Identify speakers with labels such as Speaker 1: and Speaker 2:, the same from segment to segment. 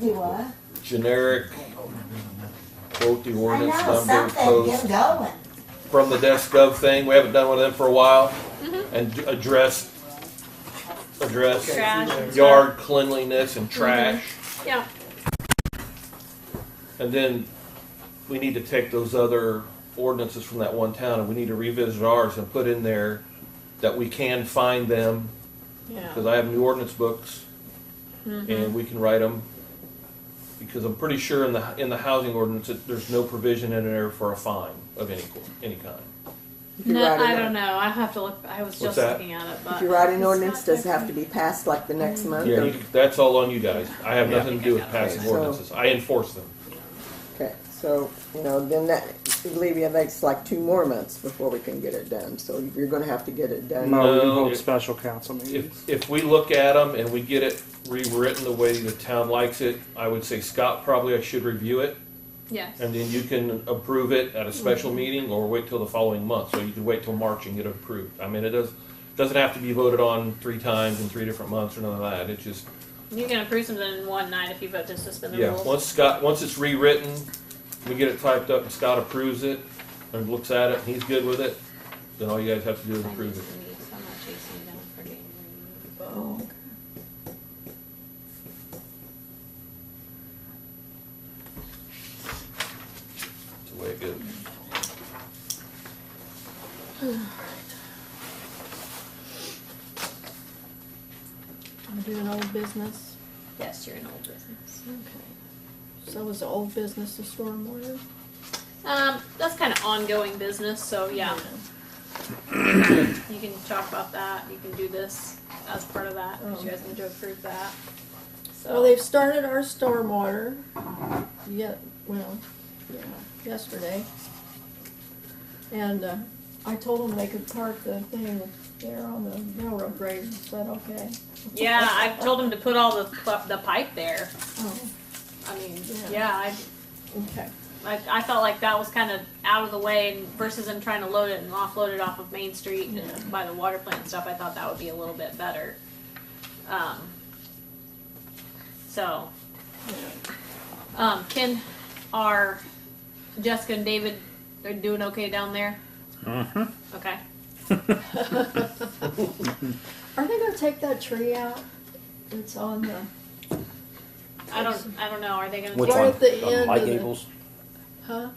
Speaker 1: You what?
Speaker 2: generic, quote the
Speaker 1: I
Speaker 2: ordinance
Speaker 1: know,
Speaker 2: number,
Speaker 1: something,
Speaker 2: post,
Speaker 1: get going.
Speaker 2: from the desk gov thing, we haven't done one of them for a while. And d- address, address
Speaker 3: Trash and stuff.
Speaker 2: yard cleanliness and trash.
Speaker 3: Yeah,
Speaker 2: And then we need to take those other ordinances from that one town and we need to revisit ours and put in there that we can find them, because
Speaker 3: yeah.
Speaker 2: I have new ordinance books and we can write them. Because I'm pretty sure in the, in the housing ordinance, that there's no provision in there for a fine of any, co- any kind.
Speaker 4: you
Speaker 3: No,
Speaker 4: write
Speaker 3: I
Speaker 4: it
Speaker 3: don't
Speaker 4: up.
Speaker 3: know. I have to look. I was
Speaker 2: What's
Speaker 3: just
Speaker 2: that?
Speaker 3: looking at it,
Speaker 4: If
Speaker 3: but
Speaker 4: you write an ordinance, does it have to be passed like the next
Speaker 3: Mm-hmm.
Speaker 4: month?
Speaker 2: Yeah,
Speaker 4: or-
Speaker 2: you- that's all on you guys. I have nothing to do with
Speaker 4: Okay,
Speaker 2: passing
Speaker 4: so-
Speaker 2: ordinances. I enforce them.
Speaker 4: Okay, so, you know, then that, Levy, that's like two more months before we can get it done, so you're gonna have to get it done.
Speaker 2: No.
Speaker 5: No, we hold
Speaker 2: if-
Speaker 5: special council meetings.
Speaker 2: If, if we look at them and we get it rewritten the way the town likes it, I would say Scott probably should review it.
Speaker 3: yes.
Speaker 2: And then you can approve it at a special meeting or wait till the following month. So you can wait till March and get it approved. I mean, it does, doesn't have to be voted on three times in three different months or none of that. It just,
Speaker 3: You can approve something in one night if you vote to suspend the
Speaker 2: yeah,
Speaker 3: rules.
Speaker 2: once Scott, once it's rewritten, we get it typed up and Scott approves it and looks at it and he's good with it, then all you guys have to do is
Speaker 3: I need
Speaker 2: approve
Speaker 3: to
Speaker 2: it.
Speaker 3: leave, so I'm not chasing down for getting
Speaker 4: Oh.
Speaker 3: removed.
Speaker 2: It's the way it goes.
Speaker 6: I'm doing old business.
Speaker 3: Yes, you're in old business.
Speaker 6: Okay. So is the old business the stormwater?
Speaker 3: Um, that's kind of ongoing business, so yeah.
Speaker 4: Mm-hmm.
Speaker 3: You can talk about that. You can do this as part of that. 'cause You guys need to approve that.
Speaker 6: Well,
Speaker 3: So
Speaker 6: they've started our stormwater. Yet, well, yeah, yesterday. And uh, I told them they could park the thing there on the railroad grade. Is that okay?
Speaker 3: yeah, I've told them to put all the pl- the pipe there.
Speaker 6: Oh,
Speaker 3: I mean,
Speaker 6: Yeah.
Speaker 3: yeah, I
Speaker 6: okay.
Speaker 3: I, I felt like that was kind of out of the way and versus them trying to load it and offload it off of Main Street and
Speaker 6: Yeah.
Speaker 3: by the water plant and stuff. I thought that would be a little bit better. Um, so, um, Ken, are Jessica and David are doing okay down there? Mm-hmm. Okay.
Speaker 6: Are they gonna take that tree out? It's on the,
Speaker 3: I don't. I don't know. Are they going to?
Speaker 7: Which
Speaker 6: Right
Speaker 7: one?
Speaker 6: at the
Speaker 7: Um,
Speaker 6: end
Speaker 7: My
Speaker 6: of the-
Speaker 7: gables?
Speaker 6: huh?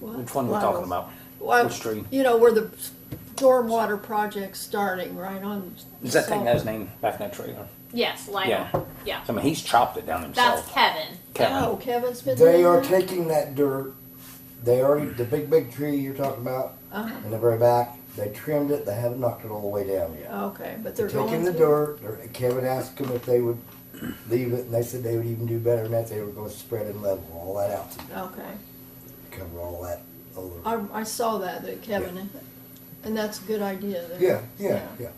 Speaker 6: What?
Speaker 7: Which one we're
Speaker 4: Laurels.
Speaker 7: talking about?
Speaker 6: Well,
Speaker 7: Which tree?
Speaker 6: You know, where the stormwater project's starting, right on.
Speaker 7: Is that thing
Speaker 6: Salt-
Speaker 7: got his name back in that trailer?
Speaker 3: Yes, Lionel.
Speaker 7: Yeah.
Speaker 3: Yeah.
Speaker 7: So, I mean, he's chopped it down
Speaker 3: That's
Speaker 7: himself.
Speaker 3: Kevin.
Speaker 6: Oh, Kevin's been.
Speaker 8: They
Speaker 6: doing
Speaker 8: are
Speaker 6: that?
Speaker 8: taking that dirt. They already the big big tree you're talking about
Speaker 6: Uh-huh.
Speaker 8: in the very back. They trimmed it. They haven't knocked it all the way down yet.
Speaker 6: Okay, but
Speaker 8: They're
Speaker 6: Uh, they're going.
Speaker 8: taking the
Speaker 6: to-
Speaker 8: dirt. They're- Kevin asked them if they would leave it, and they said they would even do better than that. They were going to spread and level all that out to
Speaker 6: Okay,
Speaker 8: cover all that over.
Speaker 6: I, I saw that, that Kevin, and that's a good idea. there.
Speaker 8: Yeah, yeah, yeah,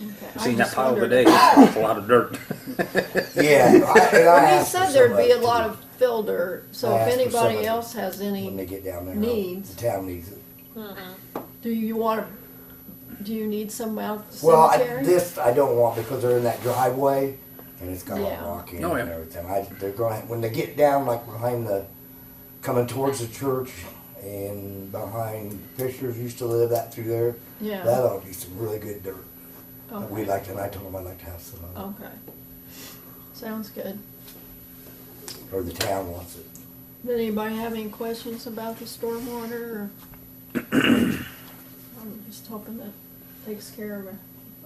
Speaker 6: Okay, I
Speaker 7: Seen that
Speaker 6: just
Speaker 7: pile
Speaker 6: wondered-
Speaker 7: today. It's a lot of dirt.
Speaker 8: yeah. I, and I
Speaker 6: Well, he
Speaker 8: asked
Speaker 6: said
Speaker 8: for
Speaker 6: there'd be
Speaker 8: somebody
Speaker 6: a lot of fill dirt, so
Speaker 8: I
Speaker 6: if
Speaker 8: asked for
Speaker 6: anybody
Speaker 8: somebody
Speaker 6: else has
Speaker 8: to- when they
Speaker 6: any,
Speaker 8: get down there.
Speaker 6: needs.
Speaker 8: the town needs it.
Speaker 6: do you want, to? do you need some out the
Speaker 8: Well, I,
Speaker 6: cemetery?
Speaker 8: this I don't want because they're in that driveway and it's got
Speaker 6: Yeah.
Speaker 8: a rock in
Speaker 7: Oh,
Speaker 8: it
Speaker 7: yeah.
Speaker 8: and everything. I, they're going to, when they get down like behind the coming towards the church and behind Fisher's used to live that through there.
Speaker 6: Yeah.
Speaker 8: That ought to be some really good dirt. that
Speaker 6: Okay.
Speaker 8: We like and I told them I'd like to have some of it,
Speaker 6: Okay. Sounds good.
Speaker 8: or the town wants it.
Speaker 6: Did anybody have any questions about the stormwater or? I'm just hoping that takes care of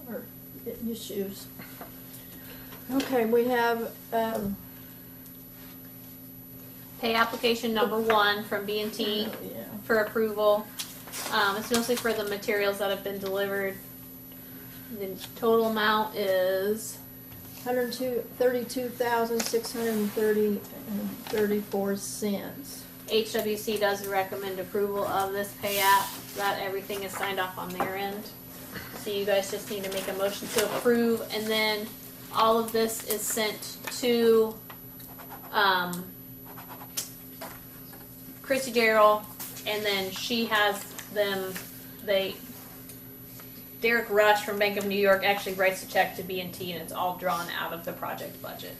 Speaker 6: our our issues. Okay, we have, um,
Speaker 3: Pay application number one from B and T.
Speaker 6: yeah,
Speaker 3: for approval. Um, it's mostly for the materials that have been delivered. The total amount is,
Speaker 6: hundred and two, thirty-two thousand, six hundred and thirty, thirty-four cents.
Speaker 3: HWC does recommend approval of this pay app, that everything is signed off on their end. So you guys just need to make a motion to approve, and then all of this is sent to, um, Chrissy Darrell, and then she has them, they, Derek Rush from Bank of New York actually writes a check to B and T, and it's all drawn out of the project budget.